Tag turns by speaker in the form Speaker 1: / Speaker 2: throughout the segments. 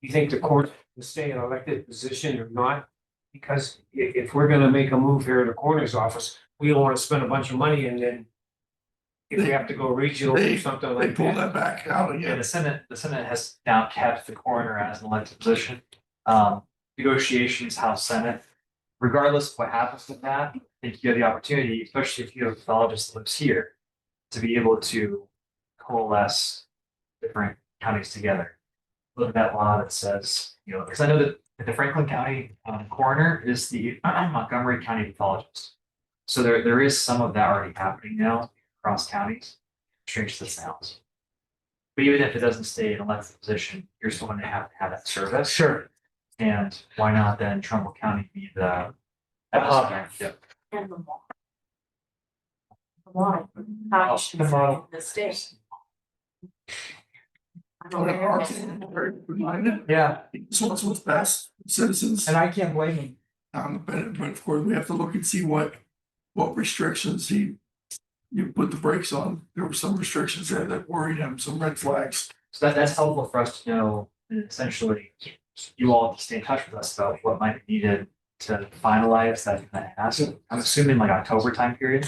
Speaker 1: you think the court will stay in elected position or not? Because i- if we're gonna make a move here in the coroner's office, we don't wanna spend a bunch of money and then. If we have to go regional or something
Speaker 2: They
Speaker 1: like
Speaker 2: pulled
Speaker 1: that,
Speaker 2: that back out
Speaker 3: Yeah,
Speaker 2: again.
Speaker 3: the Senate, the Senate has now kept the coroner as an elected position. Um, negotiations, House, Senate, regardless of what happens with that, I think you have the opportunity, especially if you have a pathologist that lives here, to be able to coalesce different counties together. Look at that law that says, you know, because I know that the Franklin County um, coroner is the Montgomery County pathologist. So there, there is some of that already happening now across counties, strange that sounds. But even if it doesn't stay in elected position, you're still gonna have to have that service. Sure. And why not then Trumbull County be the. Yep.
Speaker 4: And the law. The law, how you should
Speaker 3: The
Speaker 4: in
Speaker 3: model.
Speaker 4: the state. I'm
Speaker 2: Our-
Speaker 4: aware
Speaker 2: our
Speaker 4: of it.
Speaker 2: people are very reminded,
Speaker 3: Yeah,
Speaker 2: this what's what's best, for citizens,
Speaker 3: and I can't blame him.
Speaker 2: um, but but of course, we have to look and see what. What restrictions he. You put the brakes on, there were some restrictions there that worried him, some red flags.
Speaker 3: So that, that's helpful for us to know, essentially, you all have to stay in touch with us about what might be needed to finalize that, that ask. I'm assuming like October time period.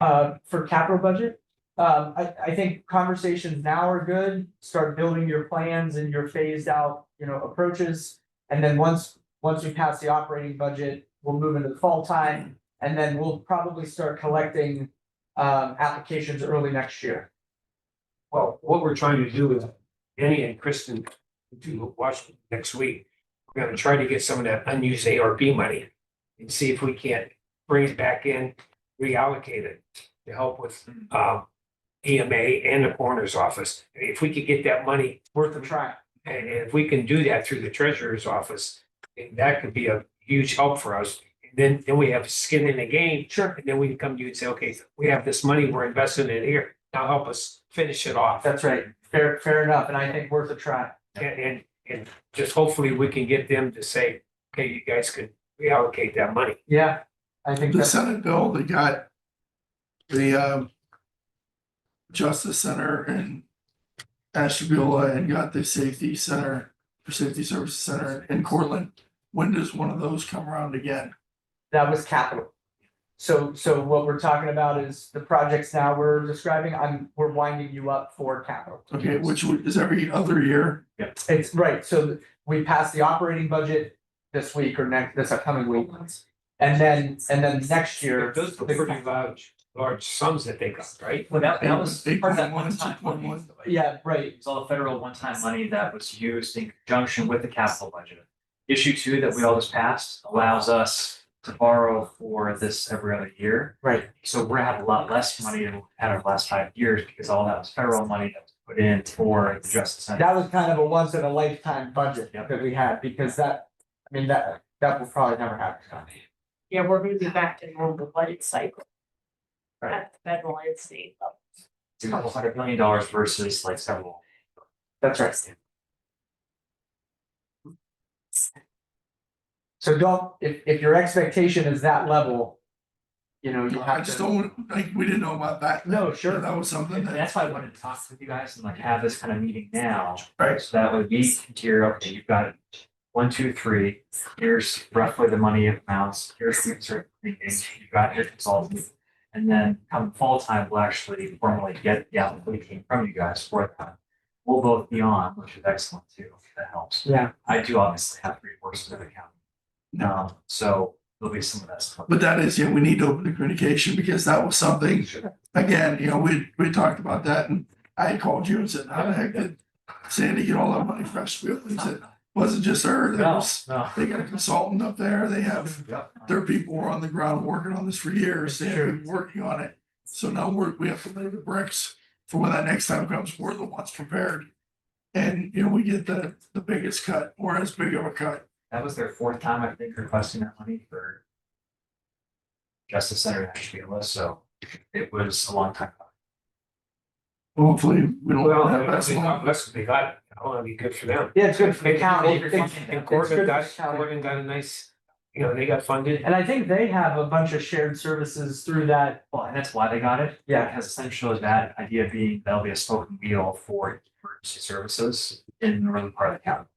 Speaker 5: uh, for capital budget. Um, I, I think conversations now are good, start building your plans and your phased out, you know, approaches. And then once, once we pass the operating budget, we'll move into the fall time, and then we'll probably start collecting. Um, applications early next year.
Speaker 1: well, what we're trying to do is, Danny and Kristen. Do Washington next week, we're gonna try to get some of that unused ARP money. And see if we can't bring it back in, reallocate it to help with
Speaker 2: Hmm.
Speaker 1: um. EMA and the coroner's office, if we could get that money
Speaker 5: Worth a try.
Speaker 1: And if we can do that through the treasurer's office, that could be a huge help for us. Then, then we have skin in the game,
Speaker 5: Sure.
Speaker 1: and then we can come to you and say, okay, we have this money, we're investing it here. Now help us finish it off.
Speaker 5: That's right. Fair, fair enough, and I think worth a try.
Speaker 1: And, and, and just hopefully we can get them to say, okay, you guys could reallocate that money.
Speaker 5: Yeah, I think
Speaker 2: The
Speaker 5: that's,
Speaker 2: Senate bill, they got. The um. Justice Center and. Ashtabula and got the Safety Center, for Safety Services Center in Cortland. When does one of those come around again?
Speaker 5: that was capital. So, so what we're talking about is the projects now we're describing, I'm, we're winding you up for capital.
Speaker 2: Okay, which would- is every other year,
Speaker 5: It's right, so th- we pass the operating budget this week or next, this upcoming week. And then, and then next year.
Speaker 1: Those are pretty large, large sums that they got, right?
Speaker 3: Well, that, that was
Speaker 2: Eight
Speaker 3: part of that
Speaker 2: point one,
Speaker 3: one
Speaker 2: two
Speaker 3: time
Speaker 2: point
Speaker 3: money.
Speaker 2: one.
Speaker 5: Yeah, right,
Speaker 3: It's all the federal one-time money that was used in conjunction with the capital budget. Issue two that we all just passed allows us to borrow for this every other year.
Speaker 5: right.
Speaker 3: So we're gonna have a lot less money than we had our last five years because all that was federal money that was put in for the justice center.
Speaker 5: That was kind of a once in a lifetime budget
Speaker 3: Yep.
Speaker 5: that we had because that, I mean, that, that will probably never happen.
Speaker 4: Yeah, we're gonna be back to normal budget cycle.
Speaker 5: Right.
Speaker 4: At the federal and state level.
Speaker 3: It's a couple hundred million dollars versus like several.
Speaker 5: That's right. So don't, if, if your expectation is that level, you know, you
Speaker 2: I
Speaker 5: have
Speaker 2: just
Speaker 5: to.
Speaker 2: don't, like, we didn't know about that.
Speaker 5: No,
Speaker 2: Sure,
Speaker 5: sure,
Speaker 2: that was something
Speaker 3: And
Speaker 2: that,
Speaker 3: that's why I wanted to talk with you guys and like have this kind of meeting now.
Speaker 2: Right.
Speaker 3: So that would be here, okay, you've got one, two, three, here's roughly the money amounts, here's the certain things, you've got your consultant. And then come fall time, we'll actually formally get the application from you guys for that. We'll both be on, which is excellent too, if that helps.
Speaker 5: yeah.
Speaker 3: I do obviously have three courses of accounting. Um, so there'll be some of that stuff.
Speaker 2: but that is, yeah, we need to open the communication because that was something, again, you know, we, we talked about that and I had called you and said, how the heck did Sandy get all that money fresh field? He said, wasn't just her, there
Speaker 3: No,
Speaker 2: was,
Speaker 3: no.
Speaker 2: they got a consultant up there, they have, their people were on the ground working on this for years, they have been working on it. So now we're, we have to lay the bricks for when that next time comes, we're the ones prepared. And, you know, we get the, the biggest cut or as big of a cut
Speaker 3: That was their fourth time, I think, requesting that money for. Justice Center Ashville, so it was a long time.
Speaker 2: Hopefully, we
Speaker 1: Well,
Speaker 2: don't have that
Speaker 1: that's,
Speaker 2: long.
Speaker 1: that's, they got, it. I want to be good for them.
Speaker 5: Yeah, it's good for the
Speaker 1: Maybe
Speaker 5: county.
Speaker 3: Baker
Speaker 5: It's-
Speaker 3: County and
Speaker 5: it's
Speaker 1: And
Speaker 5: good for
Speaker 1: Corbin
Speaker 5: the
Speaker 1: got,
Speaker 5: county.
Speaker 1: Corbin got a nice, you know, they got funded.
Speaker 5: And I think they have a bunch of shared services through that,
Speaker 3: Well, and that's why they got it.
Speaker 5: Yeah.
Speaker 3: Because essentially that idea being that'll be a spoken wheel for emergency services in the northern part of the county.